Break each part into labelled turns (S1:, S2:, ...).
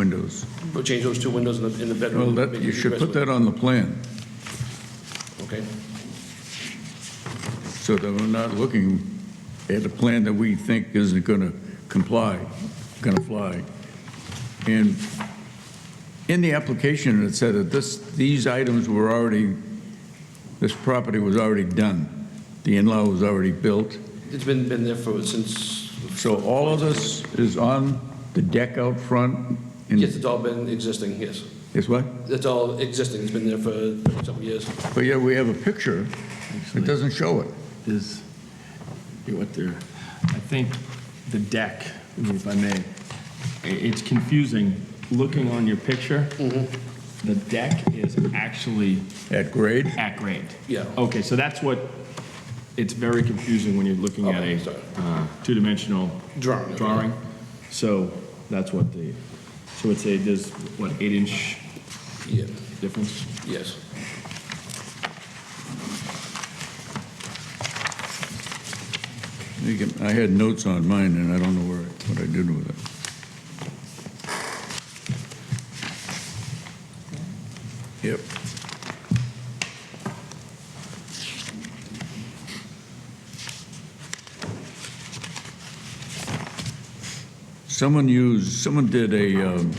S1: windows.
S2: We'll change those two windows in the, in the
S1: Well,
S2: bedroom.
S1: that,
S2: make
S1: you
S2: it
S1: should put
S2: egress
S1: that on the plan,
S2: window. Okay,
S1: so that we're not looking at a plan that we think isn't gonna comply, gonna fly. And in the application, it said that this, these items were already, this property was already done. The in-law was already built,
S2: it's been, been there for, since,
S1: so all of this is on the deck out front? and-
S2: yes, it's all been existing, yes.
S1: It's what?
S2: It's all existing, it's been there for several years.
S1: But yeah, we have a picture, it
S3: Actually,
S1: doesn't show it.
S3: is, you went there, I think the deck, I mean, if I may, i- it's confusing. Looking on your picture,
S2: Mm-hmm.
S3: the deck is actually
S1: At grade?
S3: at grade.
S2: Yeah.
S3: Okay, so that's what, it's very confusing when you're looking at
S2: Okay,
S3: a
S2: sorry.
S3: uh, two-dimensional
S2: Drawing, okay.
S3: drawing. So that's what the, so it's a, there's, what, eight-inch
S2: Yeah,
S3: difference?
S2: yes.
S1: You can- I had notes on mine, and I don't know where, I- what I did with it. Yep. Someone used, someone did a, um,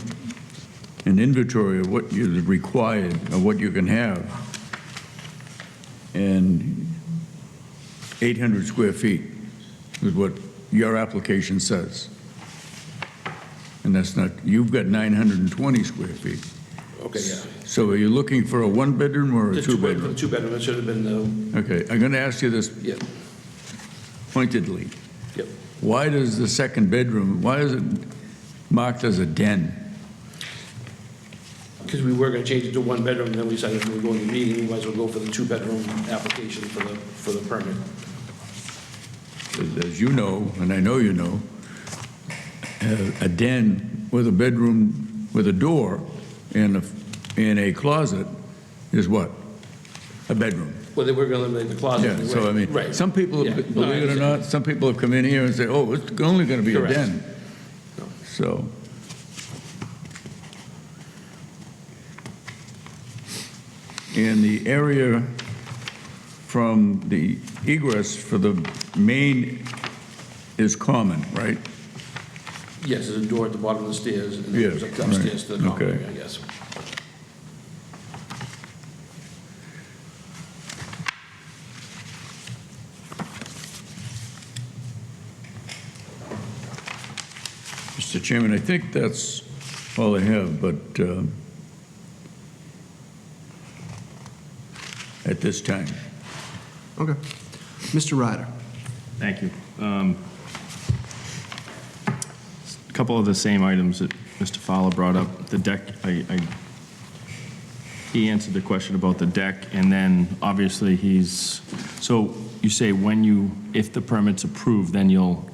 S1: an inventory of what is required, of what you can have, and 800 square feet is what your application says. And that's not, you've got 920 square feet.
S2: Okay, yeah.
S1: So are you looking for a one-bedroom or a
S2: The two bedroom,
S1: two-bedroom?
S2: two bedroom, it should have been, uh,
S1: Okay, I'm going to ask you this
S2: yeah,
S1: pointedly.
S2: Yep.
S1: Why does the second bedroom, why is it marked as a den?
S2: because we were gonna change it to one bedroom, then we decided we were going to meeting, we might as well go for the two bedroom application for the, for the permit.
S1: As- As you know, and I know you know, a- a den with a bedroom, with a door and a, and a closet is what? A bedroom.
S2: Well, they were gonna eliminate the closet.
S1: Yeah, so I mean,
S2: Right.
S1: some people,
S2: Yeah.
S1: have-
S2: No, I
S1: believe it or not, some people have come in here and say, oh, it's only going to be a
S2: Correct.
S1: den.
S2: No.
S1: So, and the area from the egress for the main is common, right?
S2: Yes, there's a door at the bottom of the stairs, and
S1: Yeah,
S2: it goes
S1: right.
S2: upstairs to the common
S1: Okay.
S2: area, I guess.
S1: Mr. Chairman, I think that's all I have, but um, at this time.
S4: Okay. Mr. Ryder,
S3: Thank you. Um, A Couple of the same items that Mr. Fowler brought up. The deck, I, I- he answered the question about the deck, and then obviously he's, so you say when you, if the permit's approved, then you'll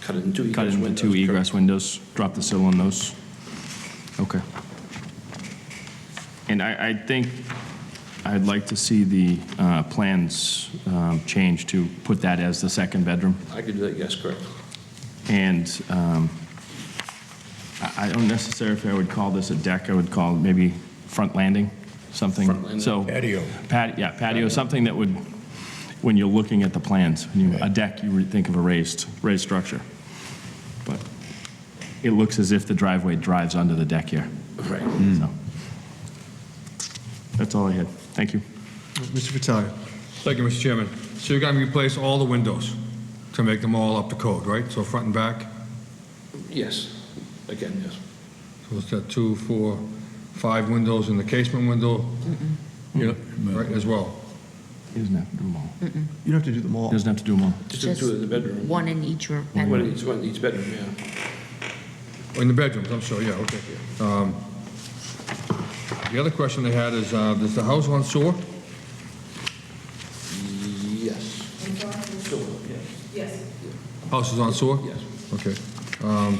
S2: Cut it into egress windows.
S3: cut it into two
S2: correct.
S3: egress windows, drop the sill on those? Okay. And I, I think I'd like to see the uh, plans um, changed to put that as the second bedroom.
S2: I could do that, yes, correct.
S3: And um, I I don't necessarily, if I would call this a deck, I would call it maybe front landing, something.
S2: Front landing.
S3: So
S1: Patio.
S3: Pat, yeah, patio, something that would, when you're looking at the plans, when you, a deck, you would think of a raised, raised structure. But it looks as if the driveway drives under the deck here,
S2: Right.
S3: so. That's all I had. Thank you.
S4: Mr. Fratelli.
S5: Thank you, Mr. Chairman. So you're going to replace all the windows to make them all up to code, right? So front and back,
S2: Yes, again, yes.
S5: so it's got two, four, five windows and the casement window,
S1: Yep.
S5: right, as well?
S3: He doesn't have to do them all. He
S4: You don't have to do them all.
S3: doesn't have to do them all.
S2: Just do two in the bedroom.
S6: One in each room.
S2: One in each, one in each bedroom, yeah.
S5: Oh, In the bedrooms, I'm sorry, yeah, okay. Um, The other question I had is, uh, does the house on sewer?
S2: Yes. Sure,
S5: House is on sewer?
S2: yes.
S5: Okay. Um,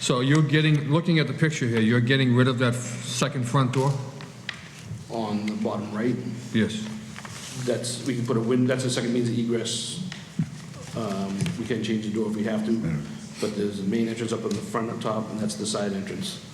S5: So you're getting, looking at the picture here, you're getting rid of that f- second front door?
S2: On the bottom right,
S5: Yes.
S2: that's, we can put a win, that's the second means of egress. Um, We can change the door if we have to, but there's the main entrance up in the front up top, and that's the side entrance.